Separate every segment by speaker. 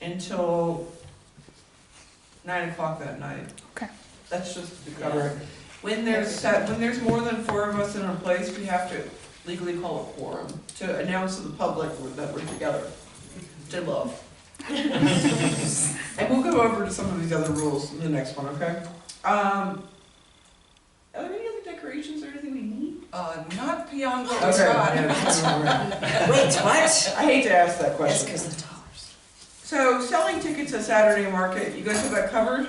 Speaker 1: until nine o'clock that night.
Speaker 2: Okay.
Speaker 1: That's just to cover it. When there's set, when there's more than four of us in a place, we have to legally call a quorum to announce to the public that we're together. To love. And we'll go over to some of these other rules in the next one, okay? Um, are there any other decorations or anything we need?
Speaker 3: Uh, not beyond what was
Speaker 1: Okay.
Speaker 3: got.
Speaker 1: yeah,
Speaker 4: Wait, what?
Speaker 1: I hate to ask that
Speaker 4: That's
Speaker 1: question.
Speaker 4: because of the dollars.
Speaker 1: So selling tickets at Saturday market, you guys have that covered?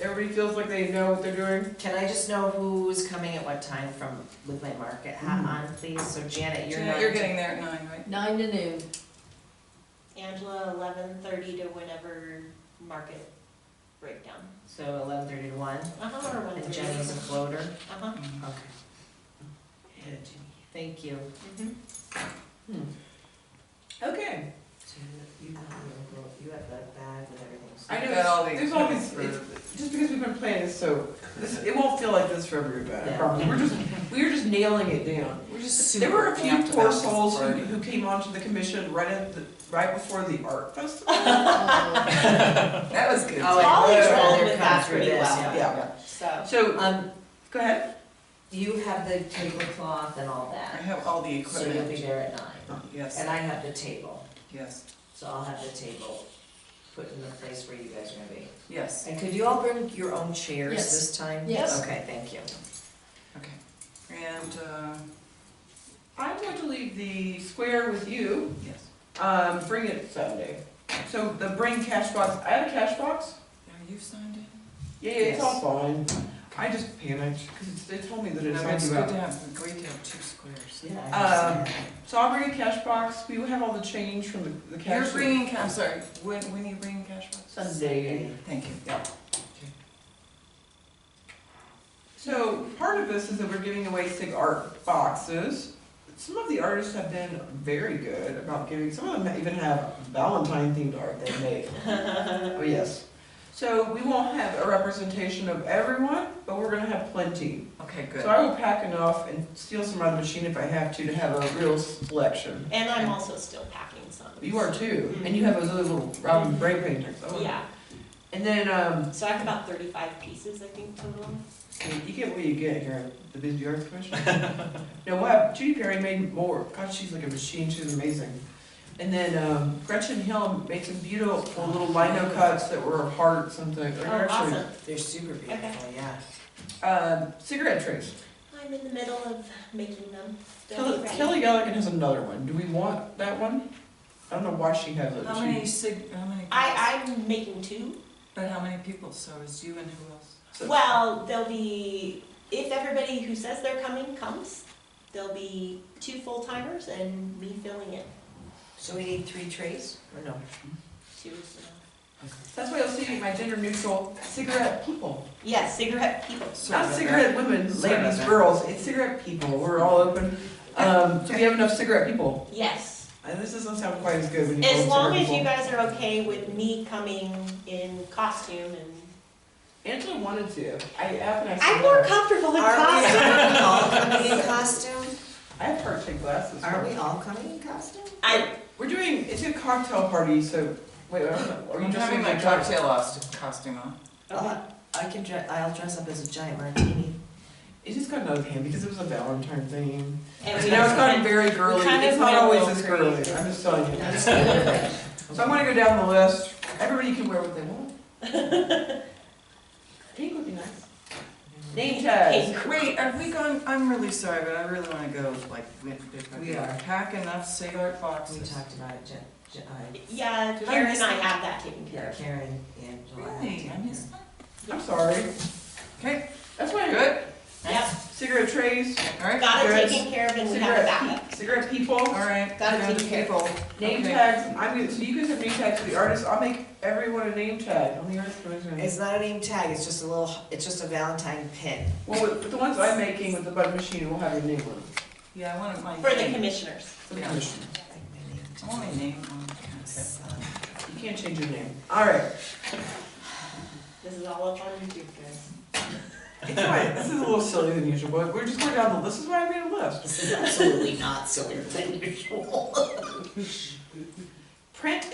Speaker 1: Everybody feels like they know what they're doing?
Speaker 4: Can I just know who's coming at what time from, with my market hat on, please? So Janet, you're
Speaker 3: Janet,
Speaker 4: not.
Speaker 3: You're getting there at nine, right?
Speaker 5: Nine to noon.
Speaker 6: Angela, eleven thirty to whenever market breakdown.
Speaker 4: So eleven thirty to one,
Speaker 6: Uh-huh, or
Speaker 4: and
Speaker 6: 1:30.
Speaker 4: Jenny's a floater,
Speaker 6: Uh-huh.
Speaker 1: Mm-hmm.
Speaker 4: okay. Good, Jenny. Thank you.
Speaker 6: Mm-hmm.
Speaker 1: Okay.
Speaker 4: So you- you have the- you have that bag with everything. so-
Speaker 1: I know,
Speaker 3: I've got all
Speaker 1: there's-
Speaker 3: these
Speaker 1: there's all these-
Speaker 3: for-
Speaker 1: Just because we've been playing this so, this, it won't feel like this for everybody, I
Speaker 4: Yeah.
Speaker 1: promise. We're just, we're just nailing it down.
Speaker 3: We're just super.
Speaker 1: There were a few
Speaker 3: amped
Speaker 1: poor
Speaker 3: about this
Speaker 1: souls who,
Speaker 3: part.
Speaker 1: who came onto the commission right at the, right before the art festival.
Speaker 5: Oh.
Speaker 3: That was good.
Speaker 4: Oh, I
Speaker 6: Polly's
Speaker 4: would
Speaker 6: rolling
Speaker 4: rather
Speaker 6: with
Speaker 4: come
Speaker 6: that
Speaker 4: through
Speaker 6: pretty
Speaker 4: this,
Speaker 6: well.
Speaker 1: Yeah,
Speaker 6: So,
Speaker 1: so,
Speaker 4: Um,
Speaker 1: go ahead.
Speaker 4: you have the tablecloth and all
Speaker 3: I
Speaker 4: that,
Speaker 3: have all the
Speaker 4: so you'll be
Speaker 3: equipment.
Speaker 4: there at nine.
Speaker 3: Yes,
Speaker 4: And I have the table,
Speaker 3: yes,
Speaker 4: so I'll have the table put in the place where you guys are gonna be.
Speaker 3: yes,
Speaker 4: And could you all bring your own chairs
Speaker 5: Yes.
Speaker 4: this time?
Speaker 5: Yes.
Speaker 4: Okay, thank you.
Speaker 3: okay. And, uh,
Speaker 1: I'm going to leave the square with you.
Speaker 3: yes,
Speaker 1: Um, bring it Sunday. So the bring cash box, I have a cash box.
Speaker 3: are you signed in?
Speaker 1: Yeah, yeah, it's all
Speaker 4: Yes.
Speaker 1: fine. I just panicked because they told me that it's
Speaker 3: No,
Speaker 1: not
Speaker 3: it's
Speaker 1: you
Speaker 3: good
Speaker 1: out.
Speaker 3: to have, great to have two squares.
Speaker 4: Yeah. I
Speaker 1: Um,
Speaker 4: understand.
Speaker 1: So I'll bring a cash box. We will have all the change from the, the cash.
Speaker 3: You're bringing, ca- I'm sorry, when, when are you bringing cash box?
Speaker 1: Sunday.
Speaker 3: Thank you.
Speaker 1: Yeah. So part of this is that we're giving away sig art boxes. Some of the artists have been very good about giving. Some of them even have Valentine themed art they made. Oh, yes. So we won't have a representation of everyone, but we're gonna have plenty.
Speaker 3: Okay,
Speaker 1: So
Speaker 3: good.
Speaker 1: I will pack enough and steal some out of the machine if I have to, to have a real selection.
Speaker 6: and I'm also still packing some.
Speaker 1: You are too, and you have those other little Robin Gray paintings. Oh.
Speaker 6: Yeah,
Speaker 1: And then, um,
Speaker 6: so I have about thirty-five pieces, I think, total.
Speaker 1: you get what you get here at the Bisbee Arts Commission. No, we'll have, Judy Perry made more, God, she's like a machine, she's amazing. And then, um, Gretchen Hill made some beautiful little lino cuts that were hearts and things.
Speaker 6: Oh, awesome.
Speaker 4: They're super beautiful, yeah.
Speaker 1: Um, cigarette trays.
Speaker 6: I'm in the middle of making them. They'll be
Speaker 1: Kelly,
Speaker 6: ready.
Speaker 1: Kelly Gallagher has another one. Do we want that one? I don't know why she has it.
Speaker 3: How
Speaker 1: She-
Speaker 3: many sig, how many? people-
Speaker 6: I, I'm making two.
Speaker 3: But how many people? So it's you and who else?
Speaker 1: so-
Speaker 6: Well, there'll be, if everybody who says they're coming comes, there'll be two full-timers and me filling in.
Speaker 4: So we need three trays, or no?
Speaker 6: Two is enough.
Speaker 1: That's why you'll see my gender neutral cigarette people.
Speaker 6: Yes, cigarette people.
Speaker 3: Sorry
Speaker 1: Not
Speaker 3: about
Speaker 1: cigarette women,
Speaker 3: Sorry about
Speaker 1: ladies,
Speaker 3: that.
Speaker 1: girls. It's cigarette people. We're all open. Um, do we have enough cigarette people?
Speaker 6: Yes.
Speaker 1: And Uh, this doesn't sound quite as good when you call
Speaker 6: As
Speaker 1: them
Speaker 6: long
Speaker 1: cigarette
Speaker 6: as you
Speaker 1: people.
Speaker 6: guys are okay with me coming in costume and.
Speaker 1: Angela wanted to. I have an
Speaker 6: I'm more comfortable in
Speaker 4: Are we
Speaker 6: costume.
Speaker 4: all coming in costume?
Speaker 1: I have heart shaped glasses.
Speaker 4: Are we all coming in costume?
Speaker 6: I,
Speaker 1: We're doing. It's a cocktail party, so wait. I don't know. Are you
Speaker 3: I'm
Speaker 1: just
Speaker 3: having
Speaker 1: doing
Speaker 3: my cocktail os- costume on.
Speaker 4: Uh, I can dre, I'll dress up as a giant martini.
Speaker 1: It just got out of hand because it was a Valentine thing.
Speaker 6: and we
Speaker 1: You know, it's gotten
Speaker 6: don't,
Speaker 1: very girly.
Speaker 6: kind of
Speaker 1: It's not always
Speaker 6: went
Speaker 1: this
Speaker 6: a little
Speaker 1: girly. I'm just telling you.
Speaker 4: That's good.
Speaker 1: So I'm gonna go down the list. Everybody can wear what they want. Pink would be nice. Name tags.
Speaker 3: Wait, are we going, I'm really sorry, but I really wanna go like.
Speaker 4: We are.
Speaker 3: Pack enough cigarette
Speaker 4: We
Speaker 3: boxes.
Speaker 4: talked about it, Jen, Jen, I-
Speaker 6: yeah,
Speaker 3: Did I
Speaker 6: Karen
Speaker 3: miss
Speaker 6: and I
Speaker 3: that?
Speaker 6: have that taken care
Speaker 4: Karen, Angela. I
Speaker 3: Really? I
Speaker 4: have to-
Speaker 3: missed that?
Speaker 1: I'm sorry.
Speaker 3: Okay,
Speaker 1: That's why I
Speaker 3: good,
Speaker 6: of. Yep,
Speaker 1: Cigarette trays,
Speaker 3: alright.
Speaker 6: got it
Speaker 1: Cigarettes.
Speaker 6: taken care of and we have a
Speaker 1: cigarette,
Speaker 6: backup.
Speaker 1: pe- cigarette people,
Speaker 3: Alright.
Speaker 6: Gotta
Speaker 3: and
Speaker 6: take care.
Speaker 3: people.
Speaker 1: name
Speaker 3: Okay.
Speaker 1: tags. I'm gonna, so you guys have name tags for the artists. I'll make everyone a name tag on the artist commission.
Speaker 4: It's not a name tag, it's just a little, it's just a Valentine pin.
Speaker 1: Well, with with the ones I'm making with the button machine, we'll have your name on it.
Speaker 3: Yeah, I wanted my.
Speaker 6: For the
Speaker 3: name.
Speaker 6: commissioners.
Speaker 1: for the
Speaker 3: Yeah.
Speaker 1: commission.
Speaker 4: Like my name
Speaker 3: I want my name on the
Speaker 4: tag.
Speaker 3: contest.
Speaker 1: You can't change your name. All right.
Speaker 6: This is all up on YouTube, guys.
Speaker 1: It's all right. This is a little sillier than usual, but we're just going down the list. This is why I made a list.
Speaker 4: This is absolutely not so unusual.
Speaker 1: Print